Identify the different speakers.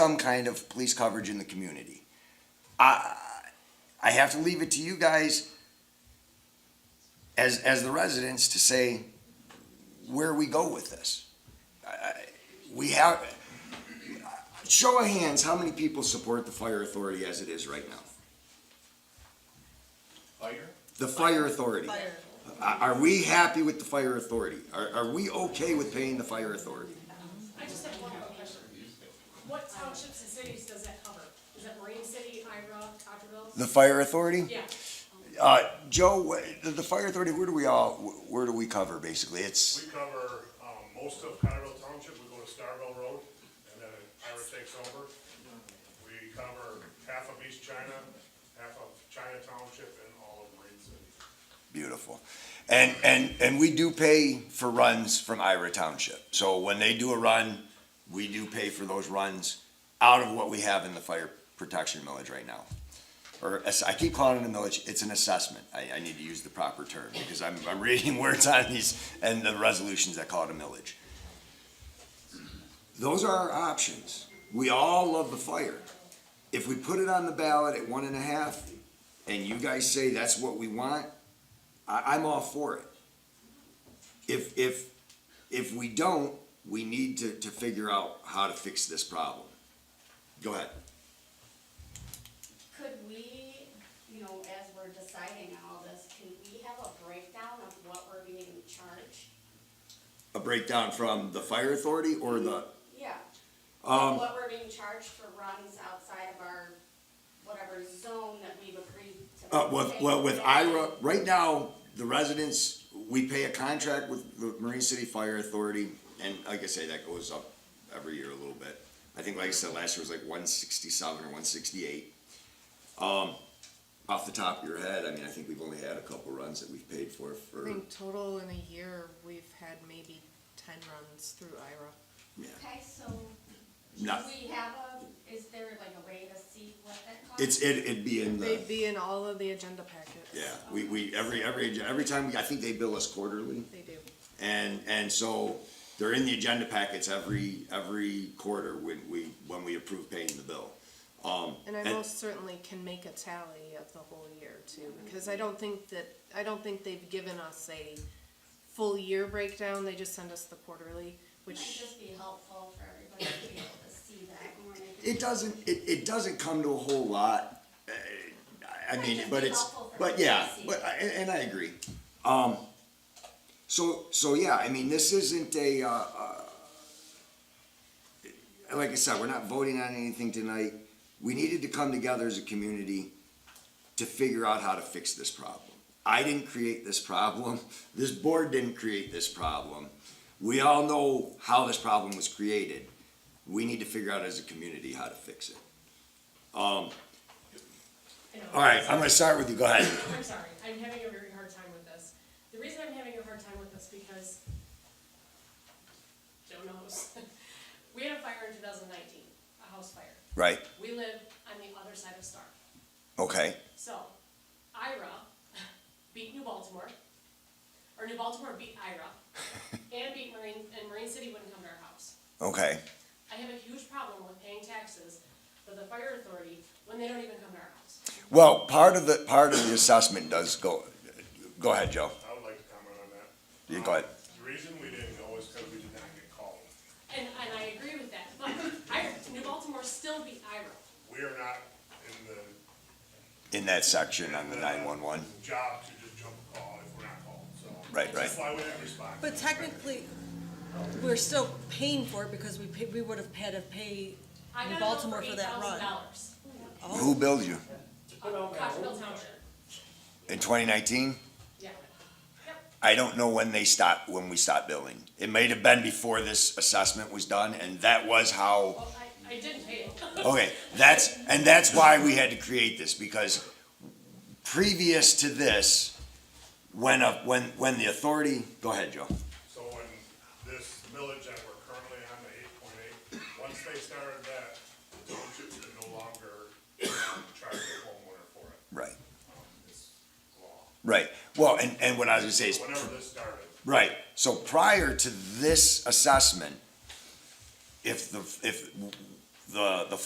Speaker 1: some kind of police coverage in the community. I, I have to leave it to you guys as, as the residents to say where we go with this. I- I- We have, show of hands, how many people support the fire authority as it is right now?
Speaker 2: Fire?
Speaker 1: The fire authority.
Speaker 3: Fire.
Speaker 1: Are, are we happy with the fire authority? Are, are we okay with paying the fire authority?
Speaker 4: I just have one more question. What townships and cities does that cover? Is that Marine City, Ira, Cockerville?
Speaker 1: The fire authority?
Speaker 4: Yeah,
Speaker 1: Uh, Joe, wh- the, the fire authority, where do we all, wh- where do we cover basically? It's,
Speaker 5: We cover, um, most of Cotterville Township, we go to Starville Road, and then Ira takes over. We cover half of East China, half of China Township, and all of Marine City.
Speaker 1: Beautiful. And, and, and we do pay for runs from Ira Township. So when they do a run, we do pay for those runs out of what we have in the fire protection millage right now. Or, as- I keep calling it a millage, it's an assessment. I, I need to use the proper term because I'm, I'm reading words on these and the resolutions that call it a millage. Those are our options. We all love the fire. If we put it on the ballot at one and a half and you guys say that's what we want, I, I'm all for it. If, if, if we don't, we need to, to figure out how to fix this problem. Go ahead.
Speaker 3: Could we, you know, as we're deciding on all this, can we have a breakdown of what we're being charged?
Speaker 1: A breakdown from the fire authority or the,
Speaker 3: Yeah,
Speaker 1: um,
Speaker 3: what we're being charged for runs outside of our, whatever zone that we've agreed to.
Speaker 1: uh, with,
Speaker 3: pay.
Speaker 1: well, with IRA, right now, the residents, we pay a contract with the Marine City Fire Authority, and like I say, that goes up every year a little bit. I think, like I said, last year was like one sixty-seven or one sixty-eight. Um, off the top of your head, I mean, I think we've only had a couple runs that we've paid for,
Speaker 6: I
Speaker 1: for.
Speaker 6: think total in a year, we've had maybe ten runs through IRA.
Speaker 3: Okay, so do
Speaker 1: No,
Speaker 3: we have a, is there like a way to see what that costs?
Speaker 1: it's, it, it'd be in
Speaker 6: They'd
Speaker 1: the,
Speaker 6: be in all of the agenda packets.
Speaker 1: yeah, we, we, every, every, every time, we I think they bill us quarterly.
Speaker 6: They do.
Speaker 1: And, and so they're in the agenda packets every, every quarter when we, when we approve paying the bill. Um,
Speaker 6: And I
Speaker 1: And-
Speaker 6: most certainly can make a tally of the whole year too, because I don't think that, I don't think they've given us a full year breakdown, they just send us the quarterly,
Speaker 3: Might
Speaker 6: which,
Speaker 3: just be helpful for everybody to be able to see that when we're making-
Speaker 1: it doesn't, it, it doesn't come to a whole lot. uh, I mean, but it's, but yeah, but, I- and, and I agree. Um, so, so yeah, I mean, this isn't a, uh, uh, like I said, we're not voting on anything tonight. We needed to come together as a community to figure out how to fix this problem. I didn't create this problem. This board didn't create this problem. We all know how this problem was created. We need to figure out as a community how to fix it. Um,
Speaker 4: I know.
Speaker 1: all right, I'm gonna start with you. Go ahead.
Speaker 4: I'm sorry, I'm having a very hard time with this. The reason I'm having a hard time with this because Joe knows. We had a fire in two thousand nineteen, a house fire.
Speaker 1: Right,
Speaker 4: We live on the other side of Star.
Speaker 1: okay,
Speaker 4: So Ira beat New Baltimore, or New Baltimore beat Ira, and beat Marine, and Marine City wouldn't come to our house.
Speaker 1: okay.
Speaker 4: I have a huge problem with paying taxes for the fire authority when they don't even come to our house.
Speaker 1: Well, part of the, part of the assessment does go, go ahead, Joe.
Speaker 5: I would like to comment on that. Um,
Speaker 1: You go ahead.
Speaker 5: The reason we didn't know is because we did not get called.
Speaker 4: And, and I agree with that, but I, New Baltimore still beat Ira.
Speaker 5: We are not in the
Speaker 1: In that section on the nine-one-one.
Speaker 5: job to just jump a call if we're not called, so.
Speaker 1: Right, right.
Speaker 5: That's why we didn't respond.
Speaker 7: But technically, we're still paying for it because we pay, we would have had to pay
Speaker 4: I
Speaker 7: New
Speaker 4: got billed for
Speaker 7: Baltimore for
Speaker 4: eight
Speaker 7: that
Speaker 4: thousand
Speaker 7: run.
Speaker 4: dollars.
Speaker 1: Who billed you?
Speaker 4: Cottrell Township,
Speaker 1: In twenty nineteen?
Speaker 4: yeah.
Speaker 1: I don't know when they stopped, when we stopped billing. It may have been before this assessment was done, and that was how,
Speaker 4: Well, I, I didn't pay it.
Speaker 1: okay, that's, and that's why we had to create this, because previous to this, when a, when, when the authority, go ahead, Joe.
Speaker 5: So when this millage that we're currently on, the eight point eight, once they started that, the township could no longer charge the homeowner for it.
Speaker 1: Right.
Speaker 5: Um, It's law.
Speaker 1: Right, well, and, and what I was gonna say is,
Speaker 5: Whenever this started,
Speaker 1: right, so prior to this assessment, if the, if the, the